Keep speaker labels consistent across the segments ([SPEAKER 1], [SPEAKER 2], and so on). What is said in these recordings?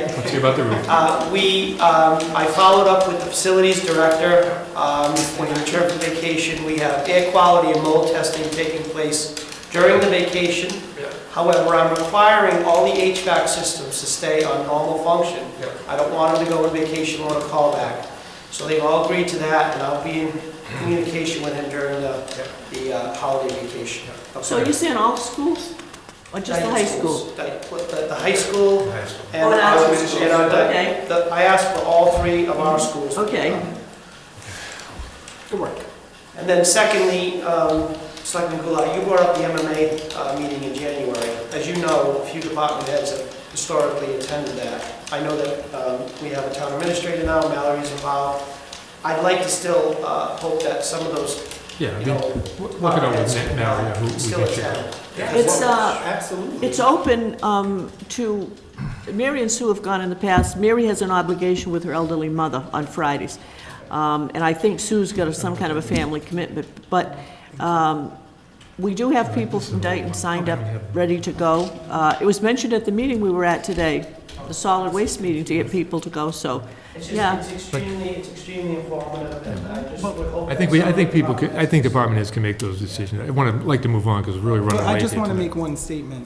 [SPEAKER 1] you about the roof.
[SPEAKER 2] Uh, We, um, I followed up with the facilities director. Um, When we return from vacation, we have air quality and mold testing taking place during the vacation.
[SPEAKER 1] Yeah.
[SPEAKER 2] However, I'm requiring all the HVAC systems to stay on normal function.
[SPEAKER 1] Yeah.
[SPEAKER 2] I don't want them to go on vacation or on a callback. So they've all agreed to that, and I'll be in communication with him during the the uh, holiday vacation.
[SPEAKER 3] So you're saying all schools or just the high school?
[SPEAKER 2] Di- The the high school,
[SPEAKER 3] Oh,
[SPEAKER 2] and
[SPEAKER 3] and
[SPEAKER 2] I
[SPEAKER 3] our
[SPEAKER 2] was,
[SPEAKER 3] schools.
[SPEAKER 2] and I,
[SPEAKER 3] Okay.
[SPEAKER 2] the- the- I asked for all three of our schools.
[SPEAKER 3] Okay.
[SPEAKER 2] To work. And then secondly, um, Selectman Goulart, you brought up the MMA uh, meeting in January. As you know, a few department heads have historically attended that. I know that um, we have a town administrator now, Mallory's involved. I'd like to still uh, hope that some of those,
[SPEAKER 1] Yeah, I
[SPEAKER 2] you
[SPEAKER 1] mean,
[SPEAKER 2] know.
[SPEAKER 1] w- look it over
[SPEAKER 2] department
[SPEAKER 1] with
[SPEAKER 2] heads
[SPEAKER 1] Nick now, yeah, who we
[SPEAKER 2] Still
[SPEAKER 1] think should go.
[SPEAKER 2] attend.
[SPEAKER 3] It's, uh,
[SPEAKER 2] Absolutely.
[SPEAKER 3] It's open um, to, Mary and Sue have gone in the past. Mary has an obligation with her elderly mother on Fridays. Um, And I think Sue's got a- some kind of a family commitment. But um, we do have people from Dayton signed up, ready to go. Uh, It was mentioned at the meeting we were at today, the solid waste meeting, to get people to go, so,
[SPEAKER 2] It's
[SPEAKER 3] yeah.
[SPEAKER 2] just, it's extremely, it's extremely informative, and I just would hope.
[SPEAKER 1] I think we, I think people, could- I think department heads can make those decisions. I want to, like to move on because we're really running
[SPEAKER 4] Well,
[SPEAKER 1] late
[SPEAKER 4] I just
[SPEAKER 1] here
[SPEAKER 4] want to
[SPEAKER 1] tonight.
[SPEAKER 4] make one statement.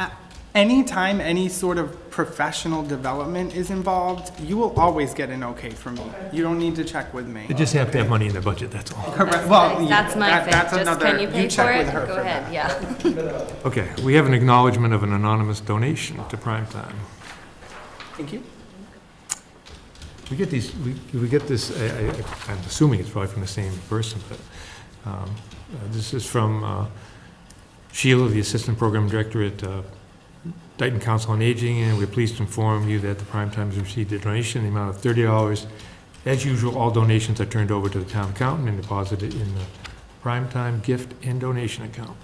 [SPEAKER 4] A- Anytime any sort of professional development is involved, you will always get an okay from me. You don't need to check with me.
[SPEAKER 1] They just have to have money in their budget, that's all.
[SPEAKER 4] Correct, well, yeah,
[SPEAKER 5] That's my
[SPEAKER 4] that-
[SPEAKER 5] thing,
[SPEAKER 4] that's
[SPEAKER 5] just
[SPEAKER 4] another-
[SPEAKER 5] can you pay for
[SPEAKER 4] check with
[SPEAKER 5] it?
[SPEAKER 4] her
[SPEAKER 5] Go
[SPEAKER 4] for
[SPEAKER 5] ahead,
[SPEAKER 4] that.
[SPEAKER 5] yeah.
[SPEAKER 1] Okay, we have an acknowledgement of an anonymous donation to Prime Time.
[SPEAKER 4] Thank you.
[SPEAKER 1] We get these, we, we get this, I, I, I'm assuming it's probably from the same person, but, um, uh, this is from, uh, Sheila, the Assistant Program Director at, uh, Dayton Council on Aging, and we're pleased to inform you that the Prime Time has received a donation in the amount of thirty dollars. As usual, all donations are turned over to the town accountant and deposited in the Prime Time gift and donation account.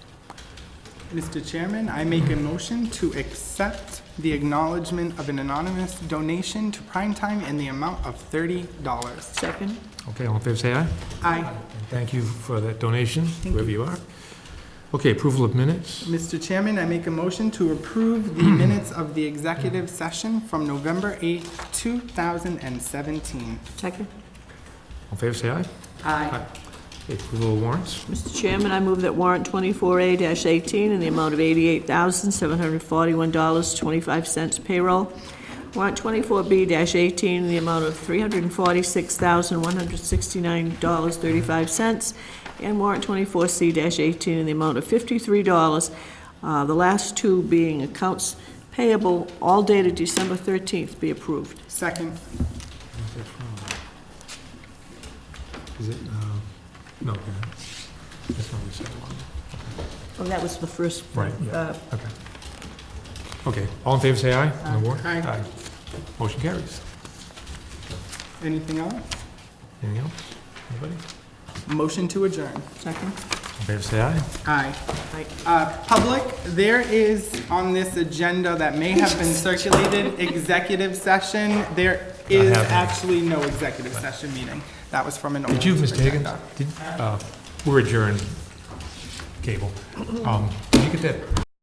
[SPEAKER 4] Mr. Chairman, I make a motion to accept the acknowledgement of an anonymous donation to Primetime in the amount of thirty dollars.
[SPEAKER 3] Second?
[SPEAKER 1] Okay, all in favor, say aye.
[SPEAKER 4] Aye.
[SPEAKER 1] And thank you for that donation, wherever you are. Okay, approval of minutes?
[SPEAKER 4] Mr. Chairman, I make a motion to approve the minutes of the executive session from November eighth, two thousand and seventeen.
[SPEAKER 3] Second.
[SPEAKER 1] All in favor, say aye.
[SPEAKER 4] Aye.
[SPEAKER 1] Okay, Approval of warrants?
[SPEAKER 3] Mr. Chairman, I move that warrant 24A-18 in the amount of $88,741.25 payroll. Warrant 24B-18 in the amount of $346,169.35. And warrant 24C-18 in the amount of $53, uh, the last two being accounts payable, all dated December 13th, be approved.
[SPEAKER 4] Second.
[SPEAKER 1] Is it, uh, no, okay. that's not what we said.
[SPEAKER 3] Oh, that was the first.
[SPEAKER 1] Right, yeah.
[SPEAKER 3] uh,
[SPEAKER 1] Okay. Okay, all in favor, say aye on the warrant?
[SPEAKER 4] Aye.
[SPEAKER 1] Motion carries.
[SPEAKER 4] Anything else?
[SPEAKER 1] Anything else? Anybody?
[SPEAKER 4] Motion to adjourn.
[SPEAKER 3] Second?
[SPEAKER 1] All in favor, say aye.
[SPEAKER 4] Aye.
[SPEAKER 3] Aye.
[SPEAKER 4] Uh, Public, there is on this agenda that may have been circulated, executive session. There is
[SPEAKER 1] happening.
[SPEAKER 4] actually no executive session meeting. That was from an old
[SPEAKER 1] Did you, Mr. Higgins,
[SPEAKER 4] agenda.
[SPEAKER 1] did, uh, we're adjourned, cable. Um, Did you get that